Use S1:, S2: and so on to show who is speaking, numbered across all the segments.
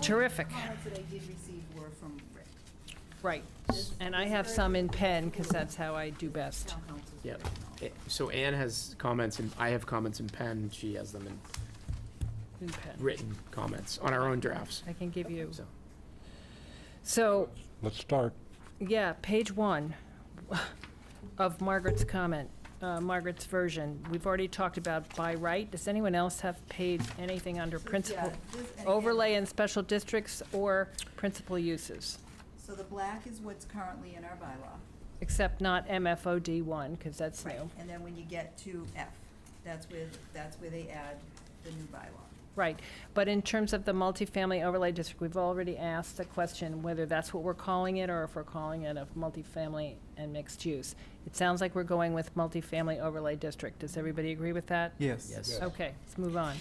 S1: Terrific,
S2: comments that I did receive were from Rick,
S1: right. And I have some in pen, because that's how I do best.
S2: town council's
S3: Yep.
S2: written
S3: Eh, So Anne has comments and I have comments in pen, she has them in
S1: In pen.
S3: written comments on our own drafts.
S1: I can give you.
S3: So,
S1: So,
S4: Let's start.
S1: yeah, page one of Margaret's comment, uh, Margaret's version. We've already talked about by right. Does anyone else have page anything under principal
S2: Yeah, this- and again-
S1: overlay and special districts or principal uses?
S2: So the black is what's currently in our bylaw.
S1: Except not MFOD one, because that's new.
S2: And then when you get to F, that's where, that's where they add the new bylaw.
S1: Right, but in terms of the multifamily overlay district, we've already asked the question whether that's what we're calling it or if we're calling it a multifamily and mixed use. It sounds like we're going with multifamily overlay district. Does everybody agree with that?
S5: Yes.
S3: Yes.
S1: Okay, let's move on.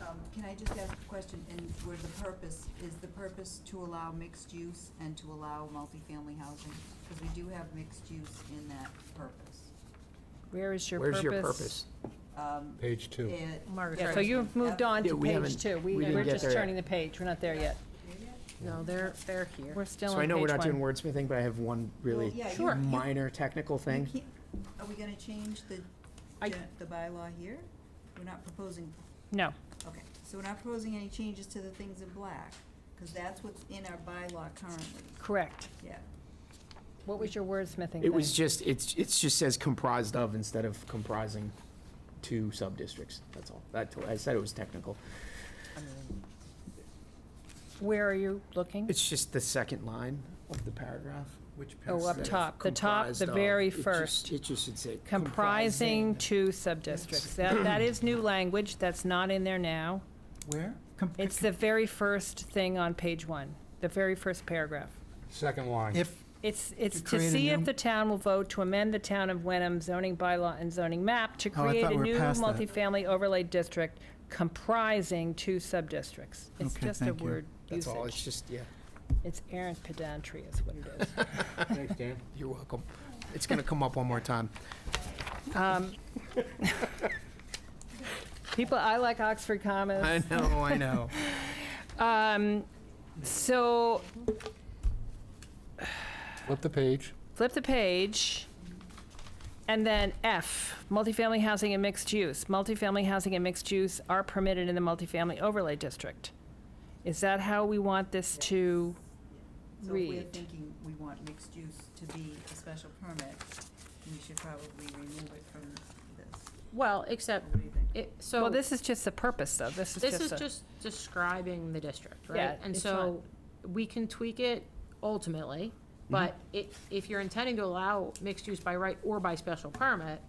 S2: Um, Can I just ask a question, and where the purpose, is the purpose to allow mixed use and to allow multifamily housing? Because we do have mixed use in that purpose.
S1: Where is your purpose?
S3: Where's your purpose?
S2: Um,
S4: Page two.
S2: it-
S1: Yeah, so you've moved on
S3: Yeah,
S1: to
S3: we
S1: page
S3: haven't-
S1: two. We,
S3: we didn't
S1: we're
S3: get
S1: just
S3: there yet.
S1: turning the page. We're not there yet.
S6: No, they're, they're here.
S1: We're still on page
S3: So I
S1: one.
S3: know we're not doing wordsmithing, but I have one really
S2: yeah, you- Sure. you-
S3: minor technical
S2: You
S3: thing.
S2: can't- Are we gonna change the,
S1: I-
S2: gen- the bylaw here? We're not proposing,
S1: No,
S2: okay, so we're not proposing any changes to the things in black, because that's what's in our bylaw currently,
S1: correct.
S2: yeah.
S1: What was your wordsmithing thing?
S3: It was just, it's, it's just says comprised of instead of comprising two sub-districts, that's all. That, I said it was technical.
S1: Where are you looking?
S3: It's just the second line of the paragraph.
S5: Which
S1: Oh, up top, the top,
S3: Comprised
S1: the
S3: of.
S1: very
S3: It just-
S1: first.
S3: It just should say.
S1: Comprising two sub-districts. That, that is new language, that's not in there now.
S5: Where?
S1: It's the very first thing on page one, the very first paragraph.
S4: Second line.
S5: If,
S1: It's, it's
S5: To
S1: to
S5: create a
S1: see if
S5: new-
S1: the town will vote to amend the town of Wenham zoning bylaw and zoning map to
S5: Oh, I
S1: create
S5: thought
S1: a
S5: we were
S1: new
S5: past that.
S1: multifamily overlay district comprising two sub-districts. It's
S5: Okay,
S1: just a
S5: thank you.
S1: word
S3: That's all, it's
S1: usage.
S3: just, yeah.
S1: It's errant pedantry is what it is.
S4: Thanks, Dan.
S3: You're welcome. It's gonna come up one more time.
S1: Um, People, I like Oxford commas.
S3: I know, I know.
S1: Um, so
S4: Flip the page.
S1: flip the page. And then F, multifamily housing and mixed use. Multifamily housing and mixed use are permitted in the multifamily overlay district. Is that how we want this
S2: So
S1: to?
S2: if we're
S1: Read.
S2: thinking we want mixed use to be a special permit, we should probably remove it from this.
S6: Well,
S2: Or
S6: except,
S2: What do you think?
S6: it, so.
S1: Well, this is just the purpose though. This is
S6: This is
S1: just a,
S6: just describing the district,
S1: Yeah,
S6: right? And
S1: it's
S6: so, we can tweak it ultimately, but
S1: Mm-hmm.
S6: it, if you're intending to allow mixed use by right or by special permit,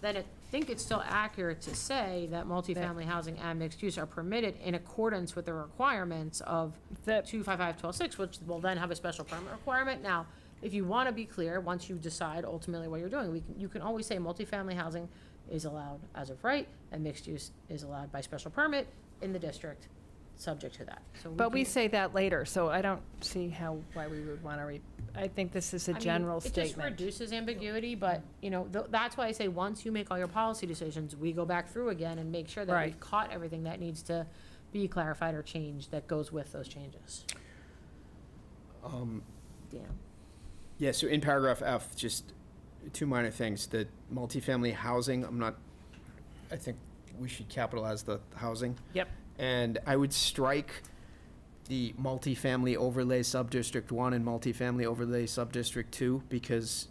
S6: then I think it's still accurate to say that multifamily housing and mixed use are permitted in accordance with the requirements of
S1: that,
S6: two five five twelve six, which will then have a special permit requirement. Now, if you want to be clear, once you decide ultimately what you're doing, we can, you can always say multifamily housing is allowed as of right, and mixed use is allowed by special permit in the district, subject to that. So
S1: but we
S6: can-
S1: say that later, so I don't see how, why we would want to re, I think this is a
S6: I mean,
S1: general
S6: It just
S1: statement.
S6: reduces ambiguity, but, you know, th- that's why I say, once you make all your policy decisions, we go back through again and make sure that
S1: Right.
S6: we've caught everything that needs to be clarified or changed that goes with those changes.
S3: Um,
S6: Damn.
S3: Yeah, so in paragraph F, just two minor things, the multifamily housing, I'm not, I think we should capitalize the housing.
S1: Yep.
S3: And I would strike the multifamily overlay sub-district one and multifamily overlay sub-district two, because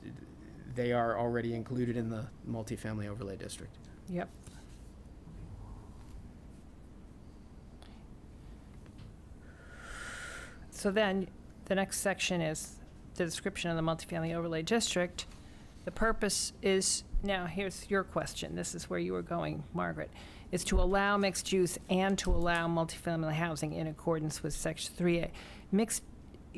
S3: they are already included in the multifamily overlay district.
S1: Yep. So then, the next section is the description of the multifamily overlay district. The purpose is, now here's your question, this is where you were going, Margaret, is to allow mixed use and to allow multifamily housing in accordance with section three A. Mixed,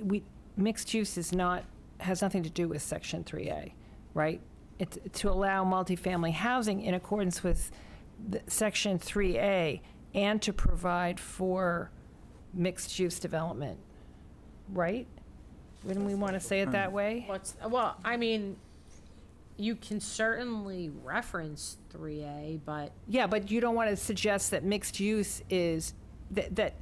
S1: we, mixed use is not, has nothing to do with section three A, right? It's to allow multifamily housing in accordance with the- section three A and to provide for mixed-use development, right? Wouldn't we want to say it that way?
S6: What's, well, I mean, you can certainly reference three A, but
S1: Yeah, but you don't want to suggest that mixed use is, that, that